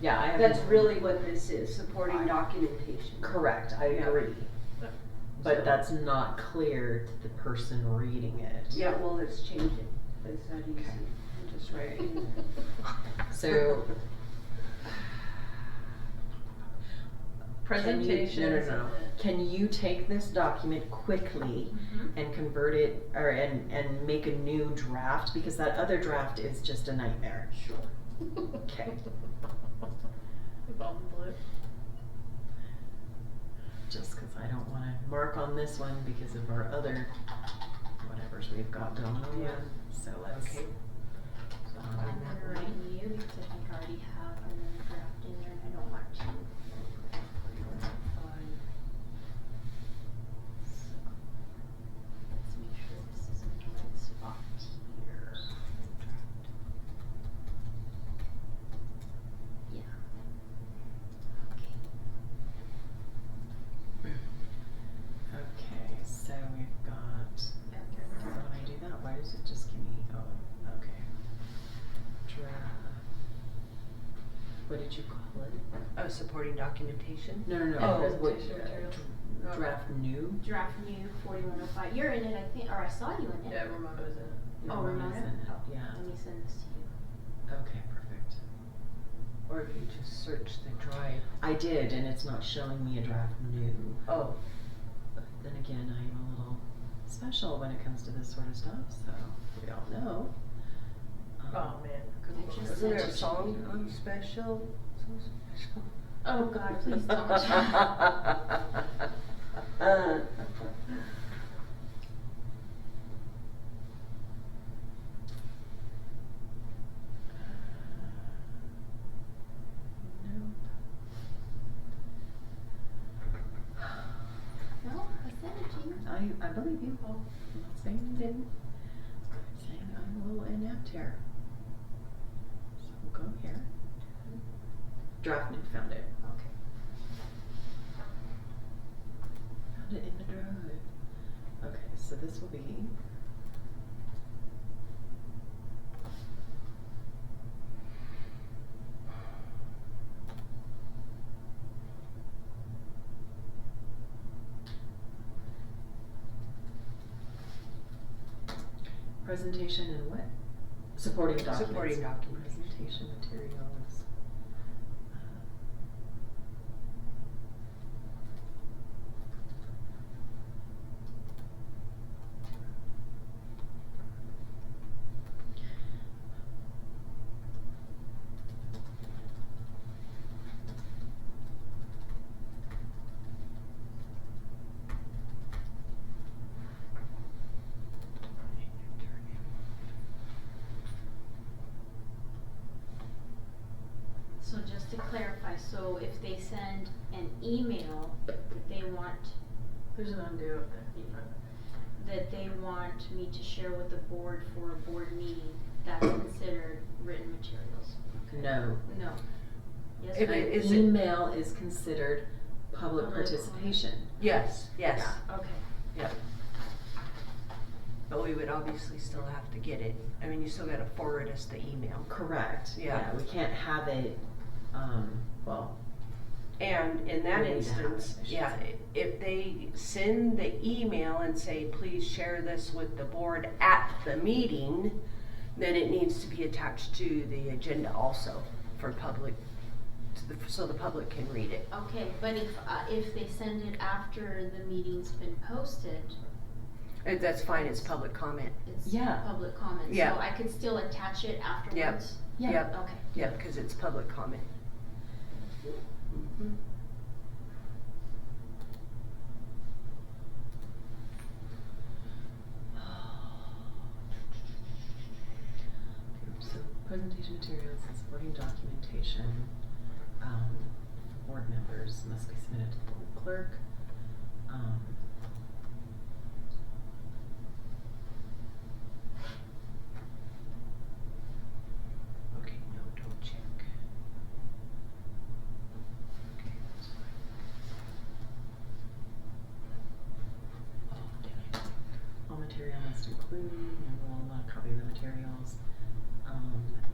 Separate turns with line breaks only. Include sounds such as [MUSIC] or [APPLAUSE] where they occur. Yeah, I have.
That's really what this is, supporting documentation.
Correct, I
Yeah.
agree.
Yeah.
But that's not clear to the person reading it.
Yeah, well, let's change it. It's that easy. I'm Just write it in [LAUGHS] there.
So. can you-
Presentations.
No, no, no. Can you take this document quickly
Mm-hmm.
Mhm.
and convert it, or, and, and make a new draft? Because that other draft is just a nightmare.
Sure.
Okay.
Involved in blue.
Just because I don't want to mark on this one because of our other whatevers we've got going on.
Yeah.
So let's.
Okay.
um,
I'm gonna write you because I think I already have another draft in there and I don't want to. So, Let's make sure this is in the right spot here. Yeah. Okay.
Okay, so we've got. So when I do that, why does it just give me, oh, okay. Draft. What did you call it?
Oh, supporting documentation?
No, no, no.
Oh,
what- what-
presentation materials.
dr- Draft new?
Draft new forty-one oh five, you're in it, I think, or I saw you in it.
Yeah, Ramona was in it.
Oh,
Ramona's
Ramona?
in it,
Oh,
Yeah,
Let me send this to you.
okay, perfect.
Or if you just search the drive.
I did, and it's not showing me a draft new.
Oh,
But Then again, I am a little special when it comes to this sort of stuff, so we all know. Um,
Oh, man. Good
I
lord.
just
isn't there
Such
a
a
song
cheater.
on special? So special.
Oh, God, please
[LAUGHS]
[LAUGHS] don't.
don't.
Nope.
No, I sent it to you.
[SIGHS] I, I believe you, Paul. I'm not saying you didn't. I'm saying I'm a little inept here. So we'll go here. Draft new, found it.
Okay.
Found it in the drive. Okay, so this will be. Presentation and what? Supporting documents.
Supporting documents.
Presentation materials. Uh,
So just to clarify, so if they send an email that they want,
There's an undo up there. in front.
that they want me to share with the board for a board meeting, that's considered written materials?
No,
No. Yes,
If
or
it
no?
is-
An email is considered public
Public
participation.
Yes, yes,
Yeah, okay.
but we would obviously still have to get it. I mean, you still gotta forward us the email.
Correct, yeah,
Yeah.
we can't have it, um, well,
And in that
We need to have it,
instance,
I should
yeah,
say.
if they send the email and say, please share this with the board at the meeting, then it needs to be attached to the agenda also for public, to the- so the public can read it.
Okay, but if, uh, if they send it after the meeting's been posted,
Uh, That's fine, it's public comment.
it's
Yeah.
public comment,
Yeah.
so I could still attach it afterwards?
yeah,
Yep,
Okay.
yep, because it's public comment. Mhm.
[SIGHS] so presentation materials and supporting documentation, um, board members must be submitted to the board clerk. Um,
Okay, no, don't check. Okay, that's fine. Oh, did I?
all material must include, and we'll not copy the materials, um,